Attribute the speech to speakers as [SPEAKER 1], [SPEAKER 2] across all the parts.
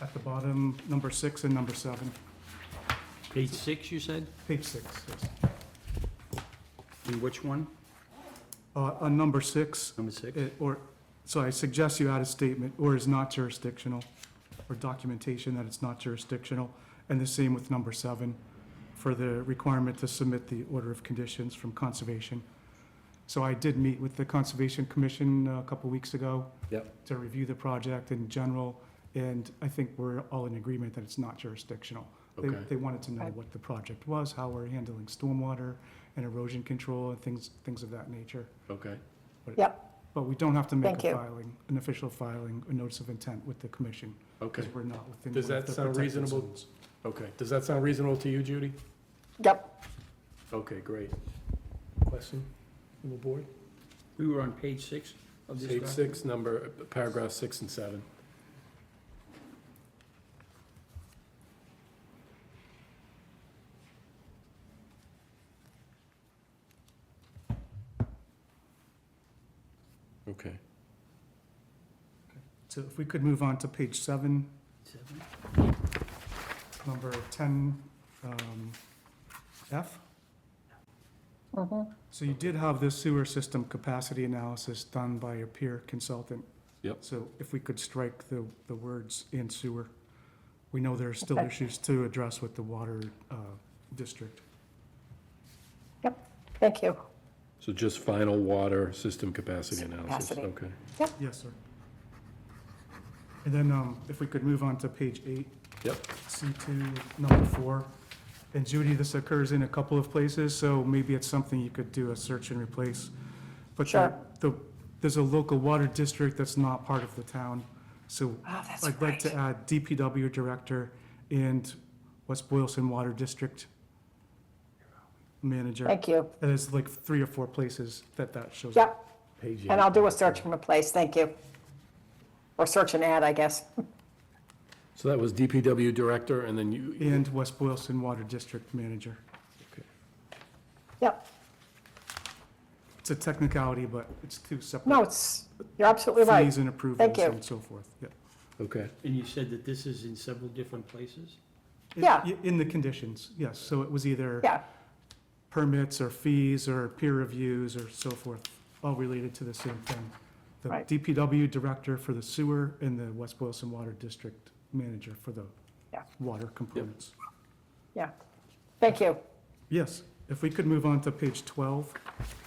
[SPEAKER 1] Uh, the bottom, number six and number seven,
[SPEAKER 2] Page six, you said?
[SPEAKER 1] page six, yes.
[SPEAKER 2] And which one?
[SPEAKER 1] Uh, On number six,
[SPEAKER 2] Number six?
[SPEAKER 1] it- or, so I suggest you add a statement, or is not jurisdictional, or documentation that it's not jurisdictional, and the same with number seven, for the requirement to submit the order of conditions from Conservation. So I did meet with the Conservation Commission uh, a couple weeks ago.
[SPEAKER 2] Yep.
[SPEAKER 1] To review the project in general, and I think we're all in agreement that it's not jurisdictional. They,
[SPEAKER 2] Okay.
[SPEAKER 1] they wanted to know what the project was, how we're handling stormwater and erosion control and things, things of that nature.
[SPEAKER 2] Okay.
[SPEAKER 3] Yep,
[SPEAKER 1] But we don't have to make
[SPEAKER 3] Thank
[SPEAKER 1] a
[SPEAKER 3] you.
[SPEAKER 1] filing, an official filing, a notice of intent with the commission,
[SPEAKER 2] Okay,
[SPEAKER 1] because we're not within.
[SPEAKER 4] Does
[SPEAKER 1] one of
[SPEAKER 4] that
[SPEAKER 1] the
[SPEAKER 4] sound
[SPEAKER 1] protected
[SPEAKER 4] reasonable?
[SPEAKER 1] zones.
[SPEAKER 2] okay,
[SPEAKER 4] Does that sound reasonable to you, Judy?
[SPEAKER 3] yep.
[SPEAKER 2] okay, great.
[SPEAKER 4] Question from the board?
[SPEAKER 2] We were on page six of this
[SPEAKER 4] Page
[SPEAKER 2] document?
[SPEAKER 4] six, number, uh, paragraph six and seven.
[SPEAKER 2] Okay.
[SPEAKER 1] So if we could move on to page seven,
[SPEAKER 2] Seven?
[SPEAKER 1] number ten, um, F.
[SPEAKER 3] Mhm.
[SPEAKER 1] So you did have this sewer system capacity analysis done by a peer consultant.
[SPEAKER 2] Yep.
[SPEAKER 1] So if we could strike the, the words in sewer, we know there are still
[SPEAKER 3] Okay.
[SPEAKER 1] issues to address with the water, uh, district.
[SPEAKER 3] Thank you.
[SPEAKER 2] So just final water system capacity analysis,
[SPEAKER 3] Capacity.
[SPEAKER 2] okay.
[SPEAKER 1] Yes, sir. And then, um, if we could move on to page eight.
[SPEAKER 2] Yep.
[SPEAKER 1] C two, number four. And Judy, this occurs in a couple of places, so maybe it's something you could do a search and replace. But the-
[SPEAKER 3] Sure.
[SPEAKER 1] the, there's a local water district that's not part of the town, so
[SPEAKER 3] Oh, that's
[SPEAKER 1] I'd like to add DPW Director and West Boylston Water District Manager.
[SPEAKER 3] Thank you.
[SPEAKER 1] And There's like three or four places that that shows up.
[SPEAKER 3] Yep, and I'll do a search and replace, thank you. Or search and add, I guess.
[SPEAKER 4] So that was DPW director, and then you,
[SPEAKER 1] And West Boylston Water District Manager.
[SPEAKER 3] Yep,
[SPEAKER 1] It's a technicality, but it's two
[SPEAKER 3] no,
[SPEAKER 1] separate
[SPEAKER 3] it's, you're absolutely right.
[SPEAKER 1] fees and approvals
[SPEAKER 3] you.
[SPEAKER 1] and so forth, yeah.
[SPEAKER 2] Okay,
[SPEAKER 5] And you said that this is in several different places?
[SPEAKER 1] In-
[SPEAKER 3] Yeah.
[SPEAKER 1] i- In the conditions, yes, so it was either
[SPEAKER 3] Yeah,
[SPEAKER 1] permits or fees or peer reviews or so forth, all related to the same thing. The
[SPEAKER 3] Right.
[SPEAKER 1] DPW Director for the sewer and the West Boylston Water District Manager for the
[SPEAKER 3] Yeah.
[SPEAKER 1] water components.
[SPEAKER 3] yeah. Thank you.
[SPEAKER 1] Yes, if we could move on to page 12,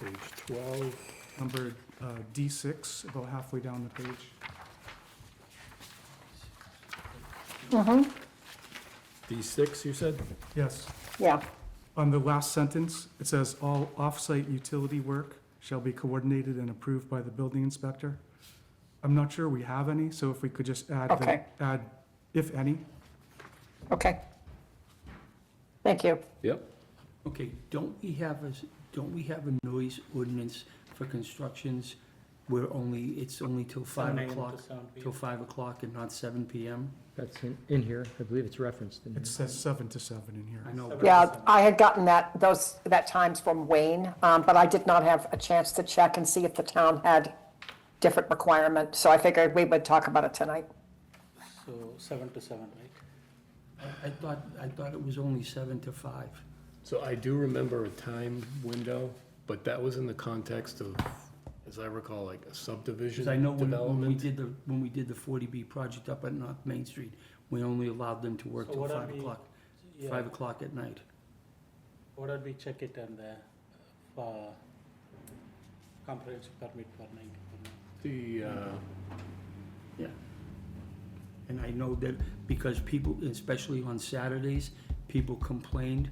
[SPEAKER 4] page twelve,
[SPEAKER 1] number uh, D6, about halfway down the page.
[SPEAKER 3] Mm-hmm,
[SPEAKER 4] D six, you said?
[SPEAKER 1] Yes.
[SPEAKER 3] yeah,
[SPEAKER 1] On the last sentence, it says, "All off-site utility work shall be coordinated and approved by the building inspector." I'm not sure we have any, so if we could just add, the-
[SPEAKER 3] Okay.
[SPEAKER 1] add, if any.
[SPEAKER 3] okay. Thank you.
[SPEAKER 2] yep,
[SPEAKER 5] Okay, don't we have a, s- don't we have a noise ordinance for constructions where only, it's only till five o'clock? Till five o'clock and not seven PM?
[SPEAKER 6] That's in, in here, I believe it's referenced in here.
[SPEAKER 1] It says seven to seven in here.
[SPEAKER 5] I know. but-
[SPEAKER 3] Yeah, I had gotten that, those, that times from Wayne, um, but I did not have a chance to check and see if the town had different requirement, so I figured we would talk about it tonight.
[SPEAKER 7] So seven to seven, right?
[SPEAKER 5] I- I thought, I thought it was only seven to five.
[SPEAKER 4] So I do remember a time window, but that was in the context of, as I recall, like a subdivision
[SPEAKER 5] Because I know when, when we
[SPEAKER 4] development.
[SPEAKER 5] did the, when we did the forty B project up at North Main Street, we only allowed them to work
[SPEAKER 7] So
[SPEAKER 5] till
[SPEAKER 7] what are
[SPEAKER 5] five
[SPEAKER 7] we-
[SPEAKER 5] o'clock,
[SPEAKER 7] Yeah.
[SPEAKER 5] five o'clock at night.
[SPEAKER 7] What did we check it on the, uh, comprehensive permit for ninety?
[SPEAKER 4] The, uh,
[SPEAKER 5] And I know that because people, especially on Saturdays, people complained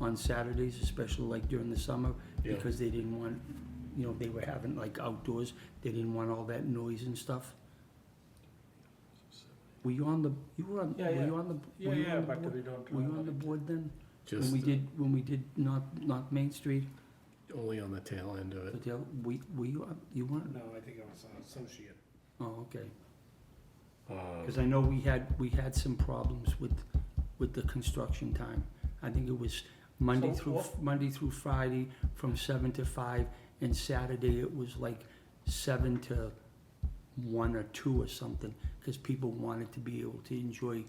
[SPEAKER 5] on Saturdays, especially like during the summer,
[SPEAKER 4] Yeah.
[SPEAKER 5] because they didn't want, you know, they were having like outdoors, they didn't want all that noise and stuff. Were you on the, you were on,
[SPEAKER 7] Yeah,
[SPEAKER 5] were
[SPEAKER 7] yeah.
[SPEAKER 5] you on the,
[SPEAKER 7] Yeah,
[SPEAKER 5] were you
[SPEAKER 7] yeah,
[SPEAKER 5] on the
[SPEAKER 7] but
[SPEAKER 5] board?
[SPEAKER 7] we don't
[SPEAKER 5] Were you on the
[SPEAKER 7] remember.
[SPEAKER 5] board then? When
[SPEAKER 4] just
[SPEAKER 5] we did, when we did not, not Main Street,
[SPEAKER 4] only on the tail end of it.
[SPEAKER 5] but the, we, were you, on- you weren't,
[SPEAKER 7] No, I think I was an associate.
[SPEAKER 5] oh, okay.
[SPEAKER 4] Um,
[SPEAKER 5] Because I know we had, we had some problems with, with the construction time. I think it was Monday
[SPEAKER 7] So
[SPEAKER 5] through,
[SPEAKER 7] what-
[SPEAKER 5] Monday through Friday from seven to five, and Saturday it was like seven to one or two or something, because people wanted to be able to enjoy